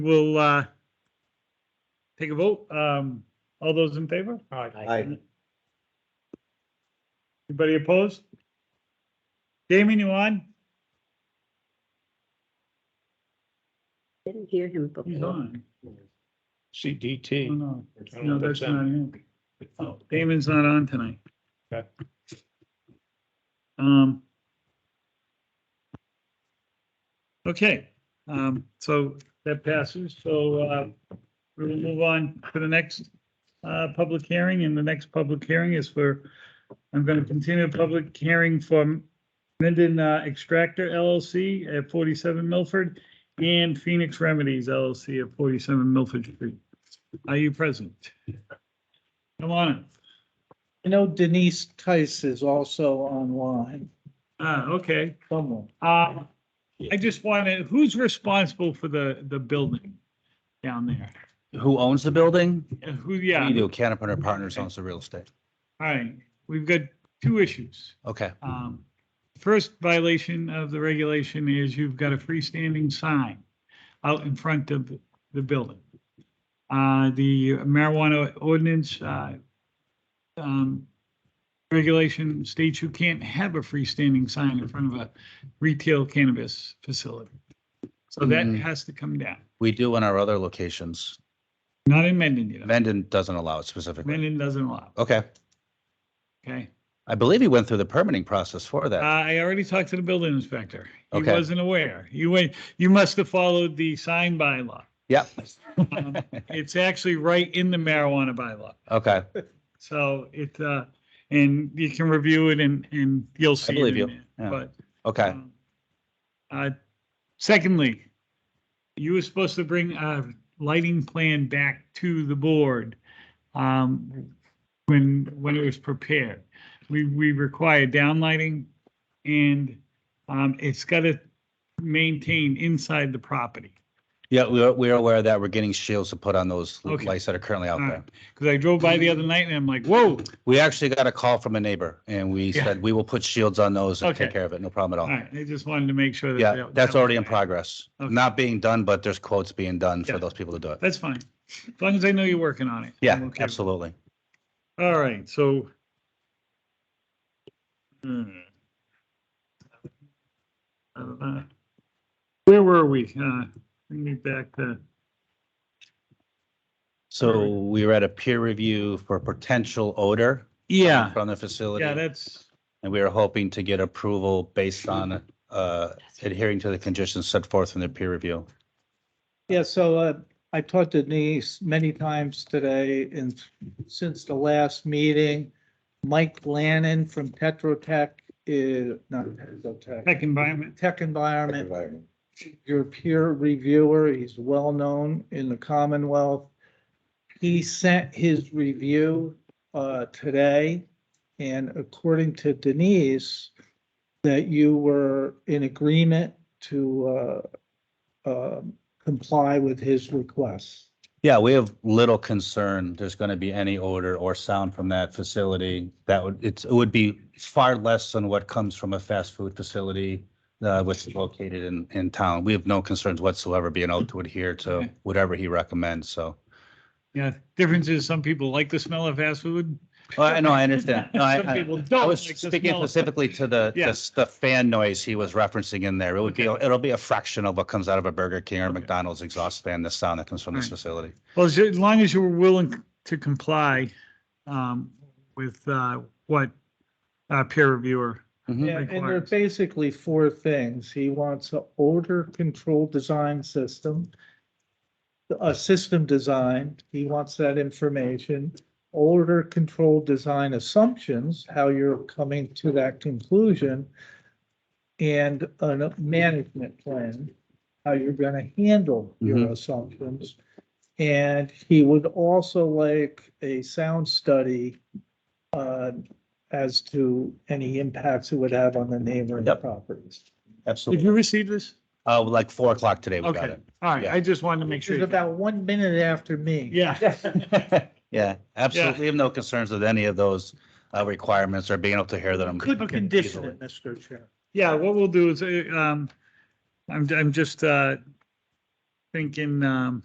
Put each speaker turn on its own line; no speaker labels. We'll uh, take a vote. Um, All those in favor?
Aye.
Anybody opposed? Damon, you on?
Didn't hear him
He's
before.
on. Oh,
CDT.
No,
I don't know
no,
if
that's
that's him.
not him. Oh, Damon's not on tonight.
Okay.
Um. Okay, um, so that passes. So, uh, we will move on to the next, uh, public hearing and the next public hearing is for, I'm going to continue a public hearing for Minden uh, Extractor LLC at forty-seven Milford and Phoenix Remedies LLC at forty-seven Milford Street. Are you present? Come on.
I know Denise Tice is also online
Ah, okay.
somewhere.
Uh, I just wanted, who's responsible for the, the building down there?
Who owns the building?
And Who, yeah,
We do. Canterbury Partners owns the real estate.
all right. We've got two issues.
Okay.
Um, first violation of the regulation is you've got a freestanding sign out in front of the building. Uh, the marijuana ordinance, uh, um, regulation states you can't have a freestanding sign in front of a retail cannabis facility. So that
Mhm.
has to come down.
We do in our other locations.
Not in Mendon, you know.
Mendon doesn't allow it specifically.
Mendon doesn't allow,
Okay.
okay?
I believe he went through the permitting process for that.
Uh, I already talked to the building inspector. He
Okay.
wasn't aware. You went, you must have followed the sign bylaw.
Yeah.
Um, It's actually right in the marijuana bylaw.
Okay.
So it, uh, and you can review it and, and you'll see. it
believe
in
you.
there,
Yeah.
But.
Okay.
um, Uh, secondly, you were supposed to bring a lighting plan back to the board, um, when, when it was prepared. We, we require downlighting and, um, it's gotta maintain inside the property.
Yeah, we are, we are aware of that. We're getting shields to put on those
Okay. Uh.
lights that are currently out
All
there.
right. Cause I drove by the other night and I'm like, whoa,
We actually got a call from a neighbor and we
Yeah.
said, we will put shields on those and
Okay.
take care of it. No problem at
all
all.
right, I just wanted to make sure. that
Yeah,
that-
that's
that was
already in
right.
progress.
Okay.
Not being done, but there's quotes being done
Yeah.
for those people to do it.
That's fine. As long as I know you're working on it. I'm
Yeah,
okay with it.
absolutely.
All right, so. Hmm. Uh, Where were we? Uh, Bring me back to,
So we were at a peer review for potential odor.
yeah,
From the facility.
yeah, that's,
And we are hoping to get approval based on uh, adhering to the conditions set forth in the peer review.
Yeah, so uh, I talked to Denise many times today and since the last meeting. Mike Lannon from Tetra Tech is, not Tetra Tech,
tech environment.
Tech Environment, your peer reviewer, he's well-known in the Commonwealth. He sent his review uh, today, and according to Denise, that you were in agreement to uh, um, comply with his requests.
Yeah, we have little concern there's going to be any odor or sound from that facility. That would, it's, it would be far less than what comes from a fast food facility uh, which is located in, in town. We have no concerns whatsoever being able to adhere to
Okay.
whatever he recommends, so.
Yeah, difference is some people like the smell of fast food.
Well, Oh, I know, I understand. No, I-
Some
I-
people
I
don't
was
Oh, like the
speaking
smell of-
specifically to the,
Yeah.
the, the fan noise he was referencing in there. It would be, it'll be a fraction of what comes out of a Burger King or
Okay.
McDonald's exhaust fan, the sound that comes from this
Right.
facility.
Well, as as long as you were willing to comply um, with uh, what uh, peer reviewer.
Yeah, and there are
Requirements.
basically four things. He wants an odor control design system, a system design, he wants that information, odor control design assumptions, how you're coming to that conclusion, and a management plan, how you're gonna handle your
Mhm.
assumptions. And he would also like a sound study uh, as to any impacts it would have on the neighboring
Yep.
properties.
Did you
Absolutely.
receive this?
Uh, like four o'clock today, we got
Okay,
it.
all right,
Yeah.
I just wanted to make
Which
sure.
is
you-
about one minute after me.
Yeah.
Yeah, absolutely. We have no concerns with any of those uh, requirements or being able to hear them.
Could
Okay.
condition it, Mr. Chair.
Yeah, what we'll do is, uh, um, I'm, I'm just, uh, thinking, um,